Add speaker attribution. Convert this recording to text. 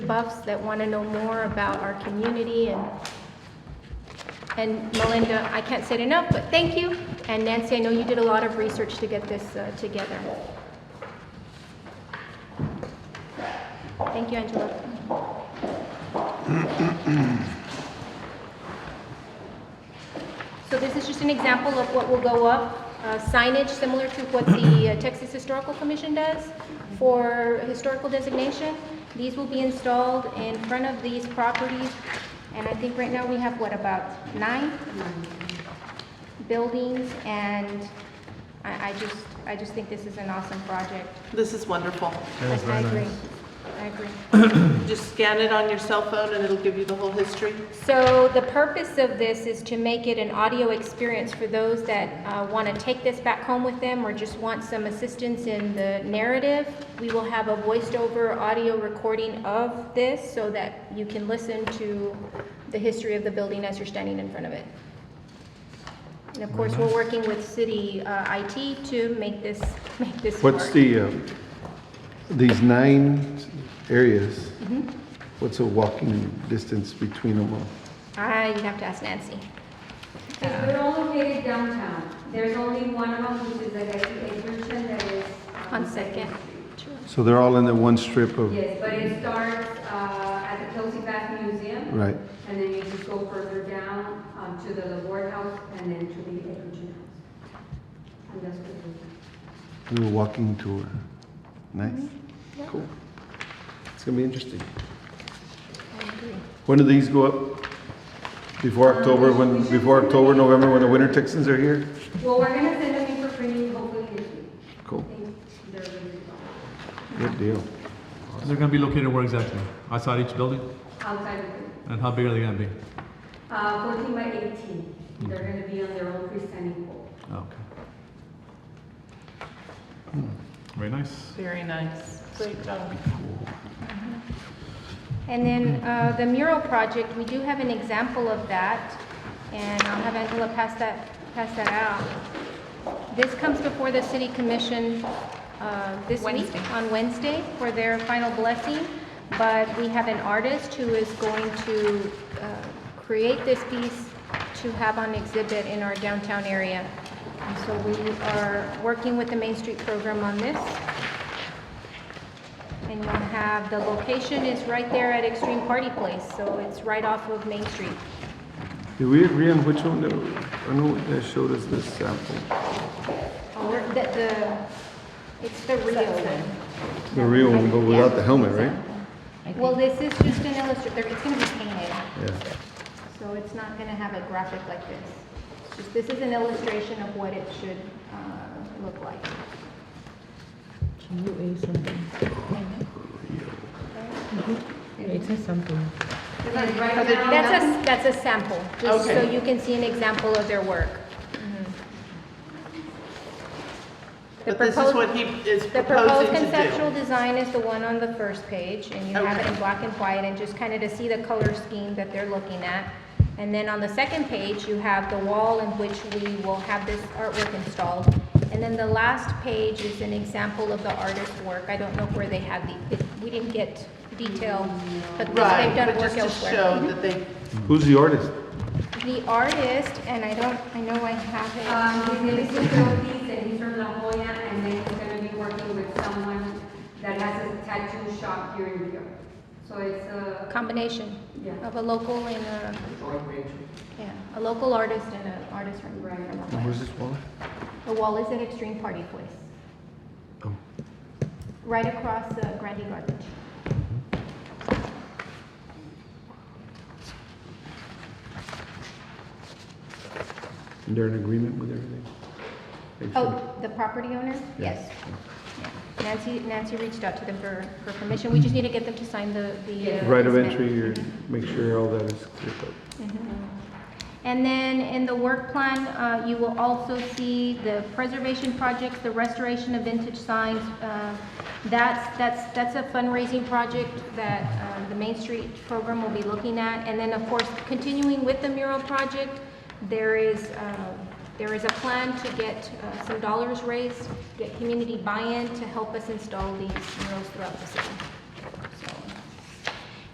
Speaker 1: buffs that want to know more about our community and, and Melinda, I can't say it enough, but thank you. And Nancy, I know you did a lot of research to get this uh, together. Thank you, Angela. So this is just an example of what will go up, uh, signage similar to what the uh, Texas Historical Commission does for historical designation. These will be installed in front of these properties, and I think right now we have, what, about nine buildings? And I, I just, I just think this is an awesome project.
Speaker 2: This is wonderful.
Speaker 1: I I agree. I agree.
Speaker 2: Just scan it on your cell phone and it'll give you the whole history.
Speaker 1: So the purpose of this is to make it an audio experience for those that uh, want to take this back home with them or just want some assistance in the narrative. We will have a voiced-over audio recording of this so that you can listen to the history of the building as you're standing in front of it. And of course, we're working with city uh, IT to make this, make this work.
Speaker 3: What's the, uh, these nine areas, what's a walking distance between them all?
Speaker 1: Ah, you'd have to ask Nancy.
Speaker 4: Because they're all located downtown. There's only one of them, which is like I think Edgerton that is. um,
Speaker 1: On Second.
Speaker 3: So they're all in the one strip of,
Speaker 4: Yes, but it starts uh, at the Kelsey Bath Museum,
Speaker 3: right?
Speaker 4: and then you just go further down um, to the Labor House and then to the Edgerton House. And that's what we
Speaker 3: Do a walking tour. Nice. Cool. It's gonna be interesting. When do these go up? Before October, when, before October, November, when the winter Texans are here?
Speaker 4: do. Well, we're gonna send them in for printing hopefully this week.
Speaker 3: Cool.
Speaker 4: I think they're ready to go.
Speaker 3: Good deal.
Speaker 5: They're gonna be located where exactly? Outside each building?
Speaker 4: Outside of it.
Speaker 5: And how big are they gonna be?
Speaker 4: Uh, 14 by 18. They're
Speaker 3: Mm.
Speaker 4: gonna be on their own freestanding pole.
Speaker 5: Oh, okay. Very nice.
Speaker 2: Very nice. Great job.
Speaker 1: And then uh, the mural project, we do have an example of that, and I'll have Angela pass that, pass that out. This comes before the city commission uh, this week, on Wednesday, for their final blessing, but we have an artist who is going to uh, create this piece to have on exhibit in our downtown area. And so we are working with the Main Street program on this. And you'll have, the location is right there at Extreme Party Place, so it's right off of Main Street.
Speaker 3: Did we agree on which one that, I know that showed us this sample?
Speaker 1: Oh, Where- The, the, it's the Rio one.
Speaker 3: The real one, but without the helmet, right?
Speaker 1: Well, this is just an illustration, it's gonna be painted,
Speaker 3: Yeah.
Speaker 1: so it's not gonna have a graphic like this. It's just, this is an illustration of what it should, uh, look like.
Speaker 6: Can you eat something? It is something.
Speaker 4: It's like right now.
Speaker 1: That's a, that's a sample, just so
Speaker 2: Okay.
Speaker 1: you can see an example of their work. The
Speaker 2: But this is
Speaker 1: proposed-
Speaker 2: what he is
Speaker 1: The proposed
Speaker 2: proposing
Speaker 1: conceptual
Speaker 2: to do.
Speaker 1: design is the one on the first page, and you have it in
Speaker 2: Okay.
Speaker 1: black and white, and just kind of to see the color scheme that they're looking at. And then on the second page, you have the wall in which we will have this artwork installed. And then the last page is an example of the artist's work. I don't know where they had the, it- we didn't get detail, but they've
Speaker 2: Right,
Speaker 1: done
Speaker 2: but
Speaker 1: work
Speaker 2: just to
Speaker 1: elsewhere. Mm-hmm.
Speaker 2: show that they,
Speaker 3: Who's the artist?
Speaker 1: The artist, and I don't, I know I have
Speaker 4: Um, his name is Mr. Ortiz, and he's from La Jolla, and then he's gonna be working with someone that has a tattoo shop here in New York. So it's
Speaker 1: a
Speaker 4: a,
Speaker 1: combination
Speaker 4: Yeah.
Speaker 1: of a local and a, yeah, a local artist and an artist from,
Speaker 4: Right.
Speaker 1: from
Speaker 3: And
Speaker 1: Ohio.
Speaker 3: Where's this wallet?
Speaker 1: The wall is at Extreme Party Place,
Speaker 3: Oh,
Speaker 1: right across uh, Grandy Garbage.
Speaker 3: and they're in agreement with everything? Thank you.
Speaker 1: Oh, the property owner?
Speaker 3: Yeah.
Speaker 1: Yes. Yeah. Nancy, Nancy reached out to them for, for permission. We just need to get them to sign the, the. uh,
Speaker 3: Right of
Speaker 1: easement.
Speaker 3: entry, or make sure all that is clear up.
Speaker 1: Mm-hmm. And then in the work plan, uh, you will also see the preservation projects, the restoration of vintage signs. Uh, That's, that's, that's a fundraising project that um, the Main Street program will be looking at. And then, of course, continuing with the mural project, there is, uh, there is a plan to get uh, some dollars raised, get community buy-in to help us install these murals throughout the city.